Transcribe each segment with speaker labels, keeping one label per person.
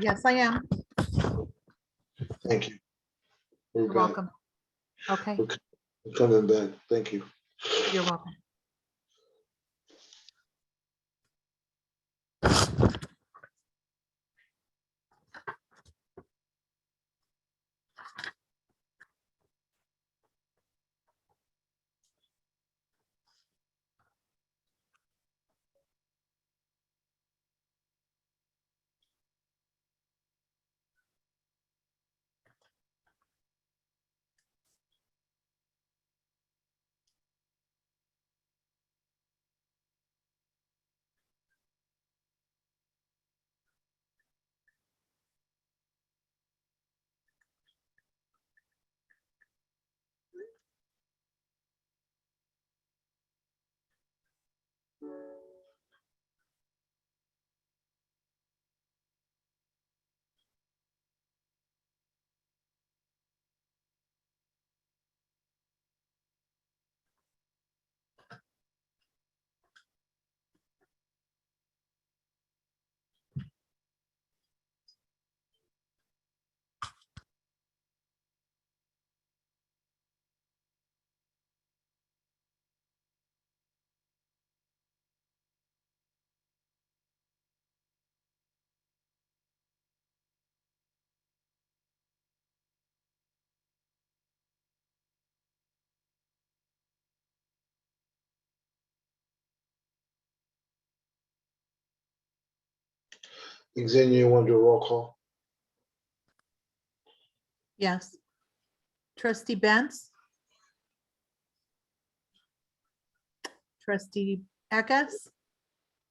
Speaker 1: Yes, I am.
Speaker 2: Thank you. We're
Speaker 1: You're
Speaker 2: back.
Speaker 1: welcome. Okay,
Speaker 2: We're Coming back. Thank you.
Speaker 1: you're welcome.
Speaker 2: Xenia, you want to do a roll call?
Speaker 1: Yes. Trustee Benz? Trustee Eckes?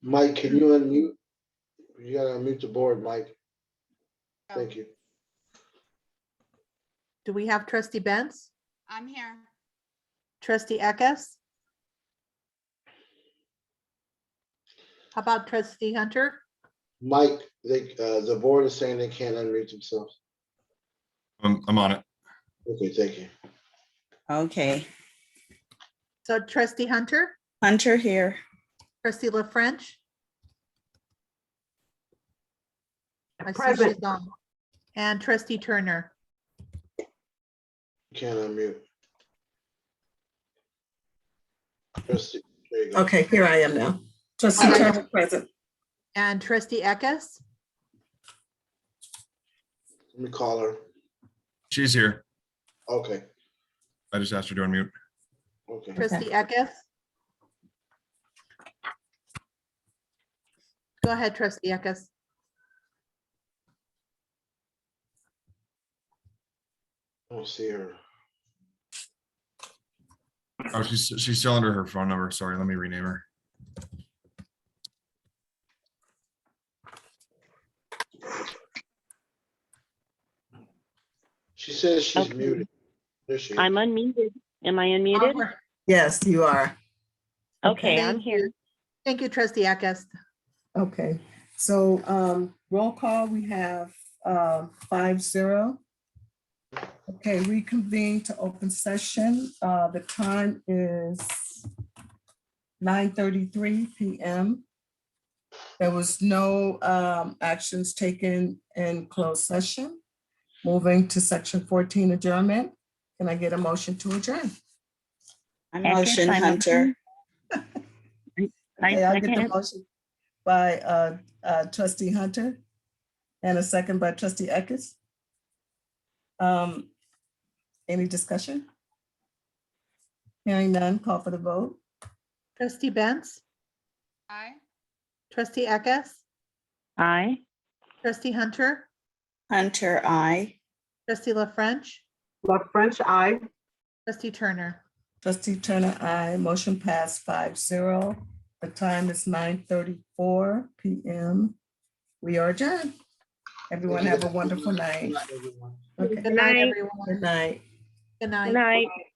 Speaker 2: Mike, can you unmute? You gotta unmute the board, Mike. Thank you.
Speaker 1: Do we have trustee Benz?
Speaker 3: I'm here.
Speaker 1: Trustee Eckes? How about trustee Hunter?
Speaker 2: Mike, they, uh, the board is saying they can't unmute themselves.
Speaker 4: I'm, I'm on it.
Speaker 2: Okay, thank you.
Speaker 5: Okay,
Speaker 1: So trustee Hunter,
Speaker 5: Hunter here.
Speaker 1: trustee La French? I see she's on. And trustee Turner?
Speaker 2: You Can't unmute. Trustee, there you go.
Speaker 6: Okay, here I am now. Trustee
Speaker 1: Alright.
Speaker 6: Turner present.
Speaker 1: And trustee Eckes?
Speaker 2: Let me call her.
Speaker 4: She's here.
Speaker 2: Okay,
Speaker 4: I just asked her to unmute.
Speaker 2: okay.
Speaker 1: Trustee Eckes? Go ahead, trustee Eckes.
Speaker 2: I don't see her.
Speaker 4: Oh, she's, she's still under her phone number. Sorry, let me rename her.
Speaker 2: She says she's
Speaker 7: Okay.
Speaker 2: muted. There she is.
Speaker 7: I'm unmuted. Am I unmuted?
Speaker 6: Yes, you are.
Speaker 7: Okay, I'm
Speaker 1: Thank
Speaker 7: here.
Speaker 1: you. Thank you, trustee Eckes.
Speaker 6: Okay, so um, roll call, we have um, five zero. Okay, reconvene to open session. Uh, The time is nine thirty-three PM. There was no um, actions taken in closed session. Moving to section fourteen adjournment. Can I get a motion to adjourn?
Speaker 5: Motion
Speaker 7: Second, I'm-
Speaker 5: Hunter.
Speaker 7: I
Speaker 6: Okay, I'll get the
Speaker 7: second.
Speaker 6: motion by uh, uh, trustee Hunter and a second by trustee Eckes. Um, Any discussion? Hearing none, call for the vote.
Speaker 1: Trustee Benz,
Speaker 3: Aye.
Speaker 1: trustee Eckes,
Speaker 7: Aye.
Speaker 1: trustee Hunter,
Speaker 5: Hunter, I.
Speaker 1: trustee La French,
Speaker 8: La French, I.
Speaker 1: trustee Turner.
Speaker 6: Trustee Turner, I motion passed five zero. The time is nine thirty-four PM. We are adjourned. Everyone have a wonderful night.
Speaker 2: Everyone.
Speaker 6: Okay,
Speaker 1: Good night,
Speaker 7: night.
Speaker 1: everyone.
Speaker 6: good night.
Speaker 1: Good
Speaker 7: Good
Speaker 1: night.
Speaker 7: night.